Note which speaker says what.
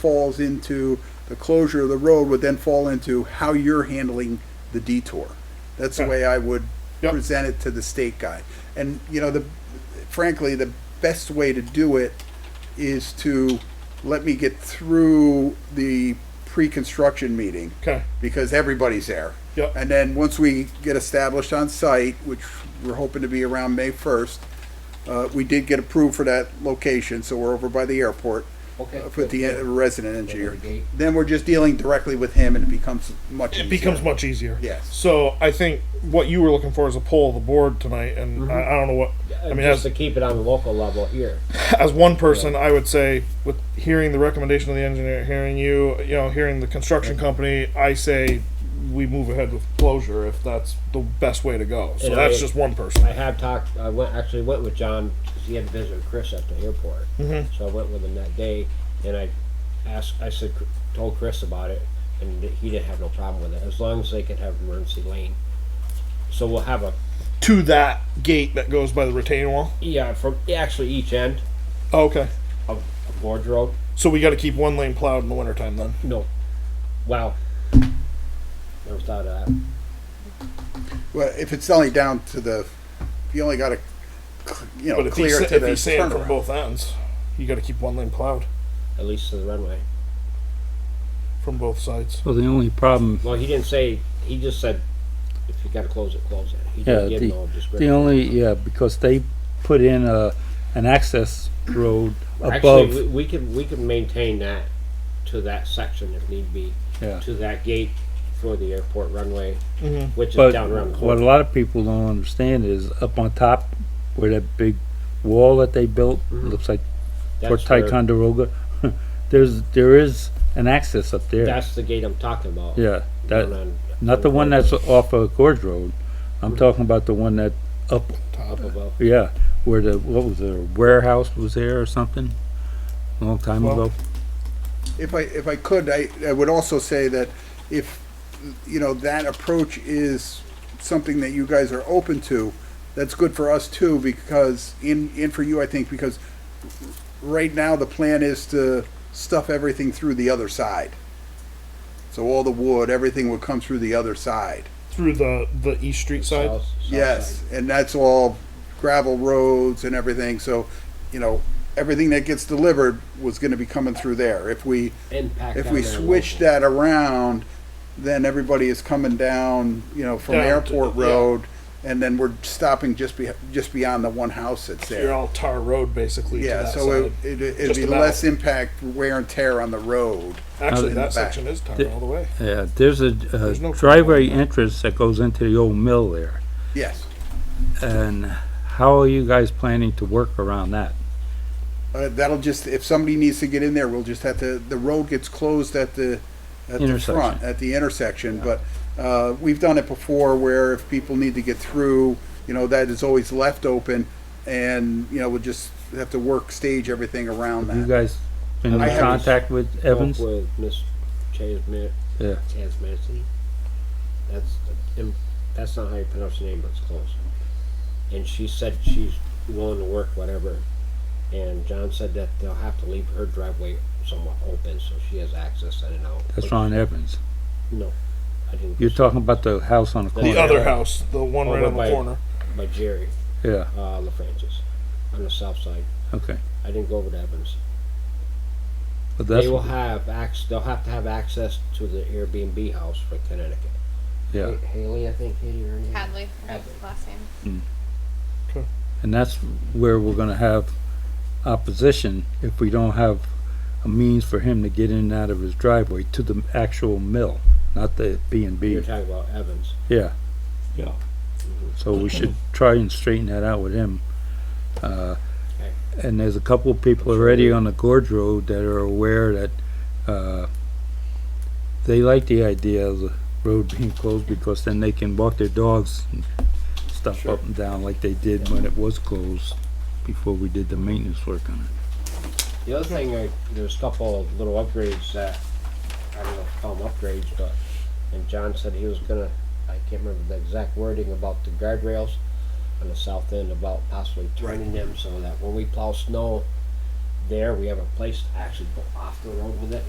Speaker 1: falls into the closure of the road would then fall into how you're handling the detour. That's the
Speaker 2: Okay.
Speaker 1: way I would
Speaker 2: Yep.
Speaker 1: present it to the state guy. And, you know, the, frankly, the best way to do it is to let me get through the pre-construction meeting
Speaker 2: Okay.
Speaker 1: because everybody's there.
Speaker 2: Yep.
Speaker 1: And then once we get established on site, which we're hoping to be around May first, uh, we did get approved for that location, so we're over by the airport.
Speaker 3: Okay,
Speaker 1: uh, With the
Speaker 3: good,
Speaker 1: uh, resident engineer.
Speaker 3: Over the gate.
Speaker 1: Then we're just dealing directly with him and it becomes much easier.
Speaker 2: It becomes much easier.
Speaker 1: Yes.
Speaker 2: So I think what you were looking for is a pull of the board tonight, and
Speaker 1: Mm-hmm.
Speaker 2: I, I don't know what. I mean,
Speaker 3: just
Speaker 2: as,
Speaker 3: to keep it on the local level here.
Speaker 2: as one person, I would say with hearing the recommendation of the engineer, hearing you, you know, hearing the construction company, I say we move ahead with closure if that's the best way to go. So
Speaker 3: And
Speaker 2: that's
Speaker 3: I-
Speaker 2: just one person.
Speaker 3: I have talked, I went, actually went with John, 'cause he had to visit Chris at the airport.
Speaker 4: Mm-hmm.
Speaker 3: So I went with him that day, and I asked, I said, told Chris about it, and he didn't have no problem with it, as long as they can have emergency lane. So we'll have a,
Speaker 2: to that gate that goes by the retaining wall.
Speaker 3: yeah, from, actually each end
Speaker 1: Oh,
Speaker 2: okay.
Speaker 3: of of Lord's Road,
Speaker 2: So we got to keep one lane plowed in the wintertime then.
Speaker 3: no, wow. Never thought of that.
Speaker 1: Well, if it's only down to the, if you only gotta, cl- you know,
Speaker 2: But if he's,
Speaker 1: clear it
Speaker 2: sa-
Speaker 1: to
Speaker 2: if
Speaker 1: the
Speaker 2: he's sand from
Speaker 1: turnaround.
Speaker 2: both ends, you got to keep one lane plowed
Speaker 3: at least to the runway.
Speaker 2: from both sides.
Speaker 4: Well, the only problem,
Speaker 3: Well, he didn't say, he just said, if you gotta close it, close it. He
Speaker 4: yeah,
Speaker 3: didn't give no
Speaker 4: the, the
Speaker 3: description.
Speaker 4: only, yeah, because they put in a, an access road
Speaker 3: Actually, we,
Speaker 4: above,
Speaker 3: we can, we can maintain that to that section if need be,
Speaker 4: yeah.
Speaker 3: to that gate for the airport runway,
Speaker 1: Mm-hmm.
Speaker 2: Mhm.
Speaker 3: which is
Speaker 4: But
Speaker 3: down around the
Speaker 4: what a
Speaker 3: corner.
Speaker 4: lot of people don't understand is up on top where that big wall that they built,
Speaker 3: Mhm.
Speaker 4: looks like for
Speaker 3: That's where,
Speaker 4: Ticonderoga, there's, there is an access up there.
Speaker 3: that's the gate I'm talking about.
Speaker 4: Yeah,
Speaker 3: down
Speaker 4: that,
Speaker 3: on-
Speaker 4: not the one that's off of Gorge Road.
Speaker 3: Mm-hmm.
Speaker 4: I'm talking about the one that up,
Speaker 3: Up above.
Speaker 4: yeah, where the, what was it, a warehouse was there or something? A long time
Speaker 2: Well,
Speaker 4: ago.
Speaker 1: If I, if I could, I, I would also say that if, you know, that approach is something that you guys are open to, that's good for us too, because, in and for you, I think, because right now, the plan is to stuff everything through the other side. So all the wood, everything would come through the other side.
Speaker 2: Through the, the East Street side.
Speaker 3: south- south
Speaker 1: Yes,
Speaker 3: side.
Speaker 1: and that's all gravel roads and everything, so, you know, everything that gets delivered was gonna be coming through there. If we,
Speaker 3: And packed
Speaker 1: if
Speaker 3: down
Speaker 1: we
Speaker 3: there
Speaker 1: switch
Speaker 3: local.
Speaker 1: that around, then everybody is coming down, you know, from
Speaker 2: Down to-
Speaker 1: Airport
Speaker 2: yeah.
Speaker 1: Road, and then we're stopping just be, just beyond the one house that's
Speaker 2: You're
Speaker 1: there.
Speaker 2: all tar road basically. to
Speaker 1: Yeah,
Speaker 2: that
Speaker 1: so it,
Speaker 2: side.
Speaker 1: it- it'd
Speaker 2: Just
Speaker 1: be
Speaker 2: about.
Speaker 1: less impact wear and tear on the road.
Speaker 2: actually
Speaker 1: in the
Speaker 2: that
Speaker 1: back.
Speaker 2: section is tar
Speaker 4: The-
Speaker 2: all the way.
Speaker 4: Yeah, Uh, there's a,
Speaker 2: There's no
Speaker 4: a driveway entrance that goes into the old mill there,
Speaker 1: Yes,
Speaker 4: and how are you guys planning to work around that?
Speaker 1: uh, that'll just, if somebody needs to get in there, we'll just have to, the road gets closed at the, at the front,
Speaker 4: Intersection.
Speaker 1: at the intersection, but, uh, we've done it before where if people need to get through, you know, that is always left open, and, you know, we'll just have to work stage everything around that.
Speaker 4: You guys been
Speaker 3: I
Speaker 4: in
Speaker 3: haven't-
Speaker 4: contact with
Speaker 3: Spoke
Speaker 4: Evans?
Speaker 3: With Miss Chasmet,
Speaker 4: Yeah,
Speaker 3: Tasmancy. That's and that's not how you pronounce the name, but it's close. And she said she's willing to work whatever. And John said that they'll have to leave her driveway somewhat open so she has access in and out.
Speaker 4: that's Ron Evans.
Speaker 3: No, I didn't.
Speaker 4: You're talking about the house on the
Speaker 2: The
Speaker 4: corner,
Speaker 3: Yeah.
Speaker 2: other house, the one right
Speaker 3: Over
Speaker 2: on the
Speaker 3: by-
Speaker 2: corner.
Speaker 3: by Jerry
Speaker 4: yeah,
Speaker 3: uh, LaFrancis on the south side.
Speaker 4: okay.
Speaker 3: I didn't go over to Evans.
Speaker 4: But that's,
Speaker 3: they will have ac- They'll have to have access to the Airbnb house for Connecticut.
Speaker 4: yeah,
Speaker 3: Ha- Haley, I think Haley or anything.
Speaker 5: Hadley, I think,
Speaker 3: Hadley.
Speaker 5: last name.
Speaker 4: and that's where we're gonna have opposition if we don't have a means for him to get in and out of his driveway to the actual mill, not the B and B.
Speaker 3: You're talking about Evans.
Speaker 4: Yeah.
Speaker 6: Yeah.
Speaker 4: So we should try and straighten that out with him. Uh,
Speaker 3: Okay.
Speaker 4: And there's a couple of people already on the Gorge Road that are aware that, uh, they like the idea of the road being closed because then they can walk their dogs and stuff up and down like they did when it was closed before we did the maintenance work on it.
Speaker 3: The other thing, I, there's a couple of little upgrades that, I don't know if call them upgrades, but, and John said he was gonna, I can't remember the exact wording about the guardrails on the south end about possibly turning them so that when we plow snow there, we have a place to actually go off the road with it